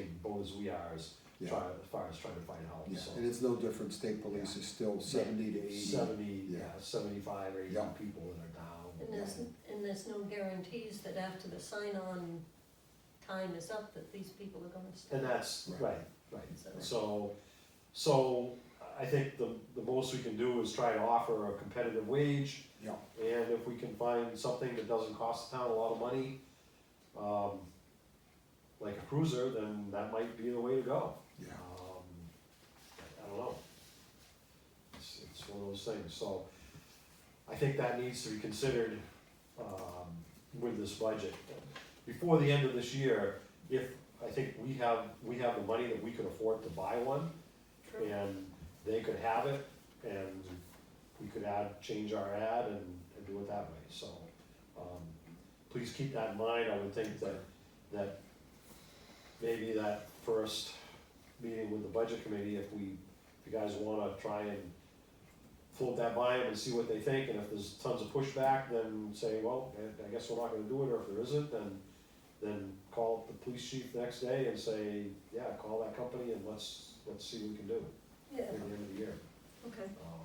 informed as we are as Yeah. try, as far as trying to find help, Yeah, so. and it's no different, state police is still seventy to eighty. Seventy, yeah. yeah, seventy-five or eighty Yeah. people that are down. And there's, and there's no guarantees that after the sign-on time is up, that these people are gonna stay. And that's, Right. right, right, So- so, so I think the, the most we can do is try to offer a competitive wage. Yeah. And if we can find something that doesn't cost the town a lot of money, um, like a cruiser, then that might be the way to go. Yeah, Um, I- I don't know. It's, it's one of those things, so I think that needs to be considered, um, with this budget. Before the end of this year, if, I think we have, we have the money that we could afford to buy one, True. and they could have it, and we could add, change our ad and, and do it that way, so. um, Please keep that in mind, I would think that, that maybe that first meeting with the budget committee, if we, if you guys wanna try and float that by them and see what they think, and if there's tons of pushback, then say, well, I- I guess we're not gonna do it, or if there isn't, then, then call the police chief the next day and say, yeah, call that company and let's, let's see what we can do Yeah, at the end of the year. okay, Um,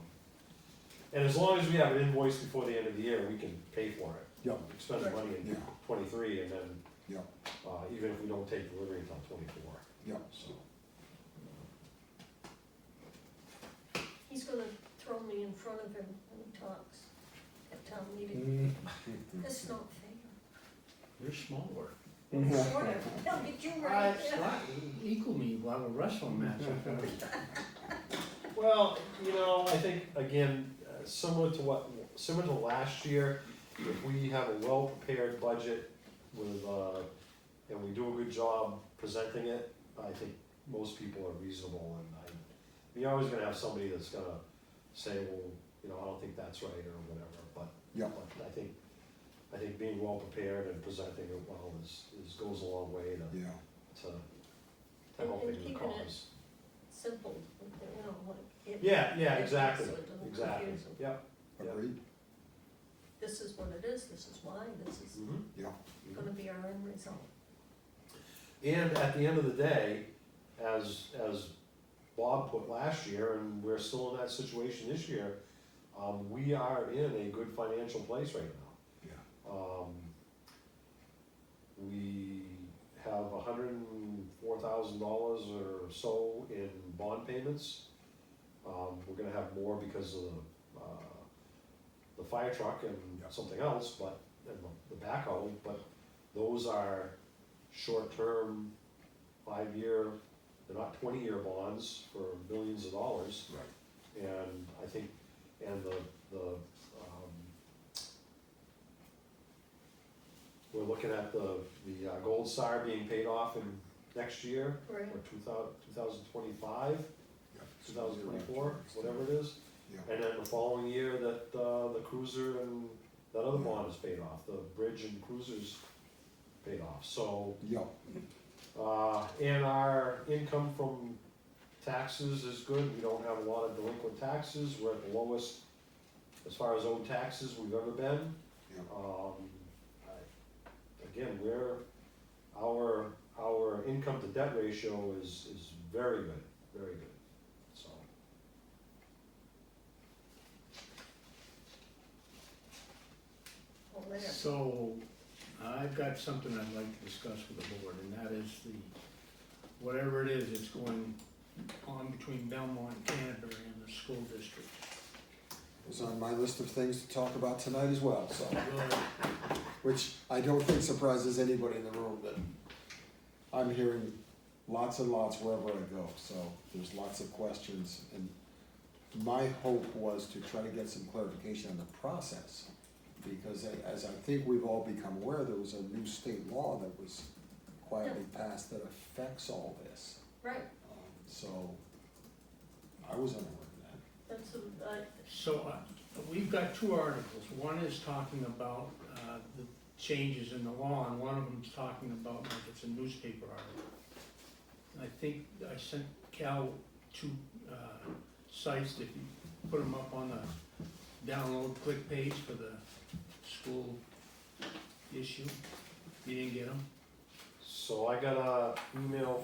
And as long as we have an invoice before the end of the year, we can pay for it. Yeah. We Spend the money in yeah, twenty-three, and then, yeah, uh, even if we don't take delivery until twenty-four, yeah. so. he's gonna throw me in front of him when he talks at town meeting, Mm. that's not fair. You're smaller. Mm-hmm. Sort of, look at you Uh, right it's there. not, equal me, we'll have a wrestling match. Well, you know, I think, again, uh, similar to what, similar to last year, if we have a well-prepared budget with, uh, and we do a good job presenting it, I think most people are reasonable, and I, you're always gonna have somebody that's gonna say, well, you know, I don't think that's right, or whatever, but. Yeah. but I think, I think being well-prepared and presenting it well is, is, goes a long way to, Yeah, to, to helping And the keeping it- cause. Simple, you know, like. it- Yeah, yeah, it- exactly, so it doesn't exactly, confuse 'em. yeah. agreed, This is what it is, this is why, this is Mhm. yeah, gonna be our end result. And at the end of the day, as, as Bob put last year, and we're still in that situation this year, um, we are in a good financial place right now. yeah, Um, we have hundred and four thousand dollars or so in bond payments. Um, we're gonna have more because of, uh, the fire truck and Yeah. something else, but, and the- the backhoe, but those are short-term, five-year, they're not twenty-year bonds for millions of dollars. right, And I think, and the, the, um, we're looking at the, the uh, Gold Star being paid off in next year, Right, or two thou- 2025, yeah. 2024, whatever it is. Yeah, And then the following year that, uh, the cruiser and that other bond is paid off, the bridge and cruisers paid off, so, yeah, uh, and our income from taxes is good, we don't have a lot of delinquent taxes, we're at the lowest as far as owed taxes we've ever been. Yeah. Um, I- again, we're, our, our income to debt ratio is, is very good, very good, so. well, there. So, I've got something I'd like to discuss with the board, and that is the, whatever it is, it's going on between Belmont, Canterbury, and the school district. it was on my list of things to talk about tonight as well, so, Well, which I don't think surprises anybody in the room that I'm hearing lots and lots wherever I go, so there's lots of questions and my hope was to try to get some clarification on the process. Because a- as I think we've all become aware, there was a new state law that was quietly passed that affects all this. Right, Um, So, I was unaware of that. that's, a- I, So, uh, we've got two articles, one is talking about, uh, the changes in the law, and one of them's talking about, like, it's a newspaper article. I think I sent Cal two, uh, sites, if you put them up on the download click page for the school issue, you didn't get them? So I got a email